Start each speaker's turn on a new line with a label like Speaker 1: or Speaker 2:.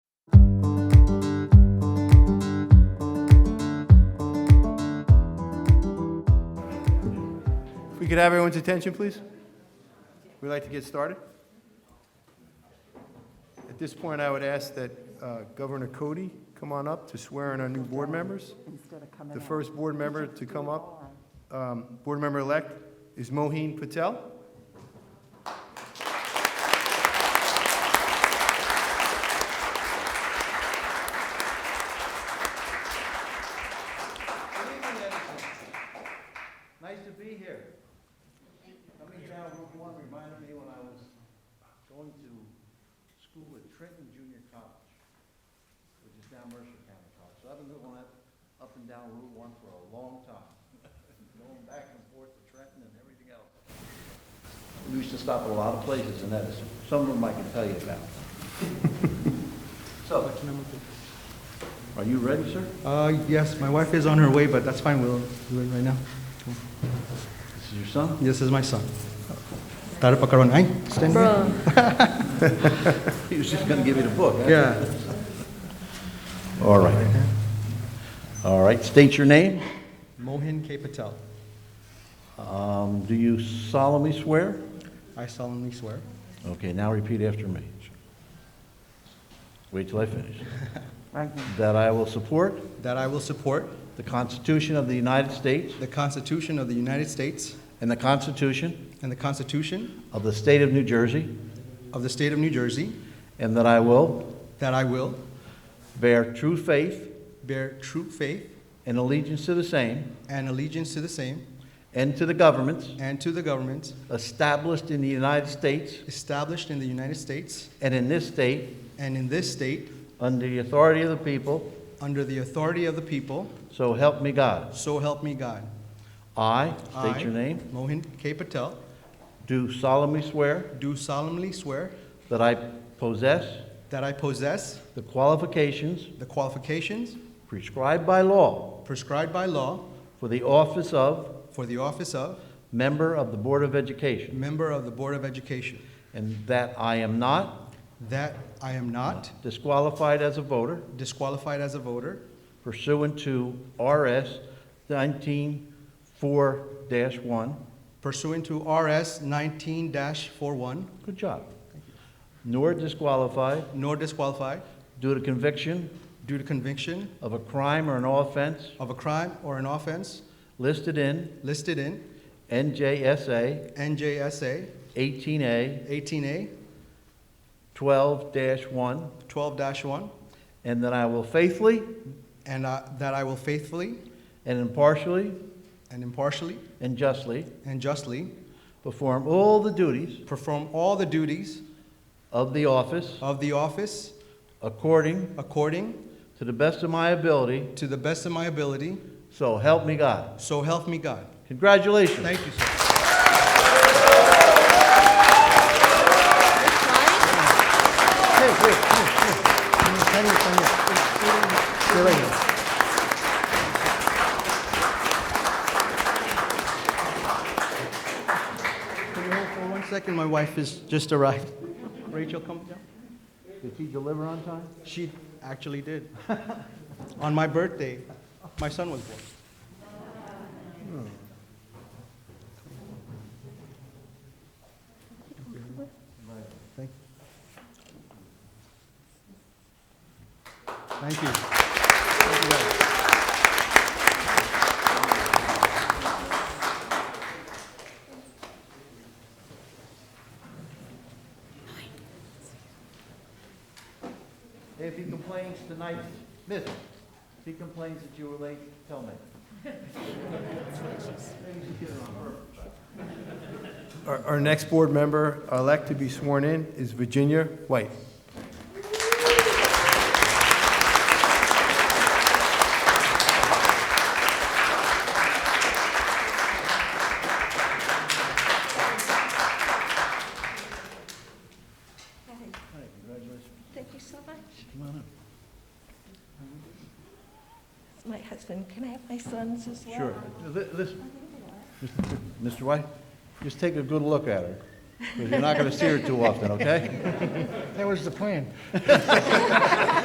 Speaker 1: could have everyone's attention, please? We'd like to get started. At this point, I would ask that uh, Governor Cody come on up to swear in our new board members.
Speaker 2: instead of coming
Speaker 1: The
Speaker 2: out.
Speaker 1: first board member to come up, um, board member-elect, is Moheen Patel.
Speaker 3: Good evening, everyone. Nice to be here. Coming down Route One reminded me when I was going to school at Trenton Junior College, which is down Mercer County College. So I've been going up, up and down Route One for a long time, going back and forth to Trenton and everything else. We used to stop at a lot of places, and that is, some of them I can tell you about. So, are you ready, sir?
Speaker 4: Uh, yes, my wife is on her way, but that's fine. We'll do it right now.
Speaker 3: This is your son?
Speaker 4: This is my son. Tara Pakaron, ay, stand here.
Speaker 5: Bro,
Speaker 3: He was just gonna give you the book. huh?
Speaker 4: Yeah.
Speaker 3: All right. All right, state your name.
Speaker 4: Mohin K. Patel.
Speaker 3: Um, Do you solemnly swear?
Speaker 4: I solemnly swear.
Speaker 3: Okay, now repeat after me. Wait till I finish.
Speaker 2: Right now.
Speaker 3: That I will support
Speaker 4: That I will support
Speaker 3: the Constitution of the United States
Speaker 4: the Constitution of the United States
Speaker 3: and the Constitution
Speaker 4: and the Constitution
Speaker 3: of the State of New Jersey,
Speaker 4: of the State of New Jersey.
Speaker 3: and that I will
Speaker 4: That I will
Speaker 3: bear true faith
Speaker 4: bear true faith
Speaker 3: and allegiance to the same
Speaker 4: and allegiance to the same
Speaker 3: and to the governments
Speaker 4: and to the government
Speaker 3: established in the United States
Speaker 4: established in the United States
Speaker 3: and in this state
Speaker 4: and in this state
Speaker 3: under the authority of the people,
Speaker 4: under the authority of the people.
Speaker 3: so help me God.
Speaker 4: So help me God.
Speaker 3: I,
Speaker 4: I,
Speaker 3: state your name,
Speaker 4: Mohin K. Patel.
Speaker 3: do solemnly swear
Speaker 4: Do solemnly swear
Speaker 3: That I possess
Speaker 4: that I possess
Speaker 3: the qualifications
Speaker 4: the qualifications
Speaker 3: prescribed by law
Speaker 4: prescribed by law
Speaker 3: for the office of
Speaker 4: for the office of
Speaker 3: Member of the Board of Education,
Speaker 4: Member of the Board of Education,
Speaker 3: and that I am not
Speaker 4: that I am not
Speaker 3: disqualified as a voter
Speaker 4: disqualified as a voter
Speaker 3: pursuant to RS 194-1.
Speaker 4: pursuant to RS 19-41,
Speaker 3: Good job. Nor disqualified
Speaker 4: nor disqualified
Speaker 3: due to conviction
Speaker 4: due to conviction
Speaker 3: of a crime or an offense
Speaker 4: of a crime or an offense
Speaker 3: listed in
Speaker 4: listed in
Speaker 3: NJSA
Speaker 4: NJSA
Speaker 3: 18A
Speaker 4: 18A
Speaker 3: 12-1,
Speaker 4: 12-1,
Speaker 3: and that I will faithfully
Speaker 4: and uh, that I will faithfully
Speaker 3: And impartially
Speaker 4: and impartially
Speaker 3: and justly
Speaker 4: and justly
Speaker 3: perform all the duties
Speaker 4: perform all the duties
Speaker 3: of the office
Speaker 4: of the office
Speaker 3: according
Speaker 4: according
Speaker 3: to the best of my ability,
Speaker 4: To the best of my ability,
Speaker 3: so help me God.
Speaker 4: so help me God.
Speaker 3: Congratulations.
Speaker 4: Thank you, sir. Can you hold for one second? My wife has just arrived. Rachel, come down.
Speaker 3: Did he deliver on time?
Speaker 4: She actually did. On my birthday, my son was born. Thank Thank you. Thank you. guys.
Speaker 3: If he complains tonight, miss him. If he complains that you were late, tell me.
Speaker 1: Our our next board member-elect to be sworn in is Virginia White.
Speaker 5: thank you so much. My husband, can I have my sons as well?
Speaker 3: Sure. Li- Listen, Mr. White, just take a good look at her, because you're not going to see her too often, okay?
Speaker 6: That was the plan.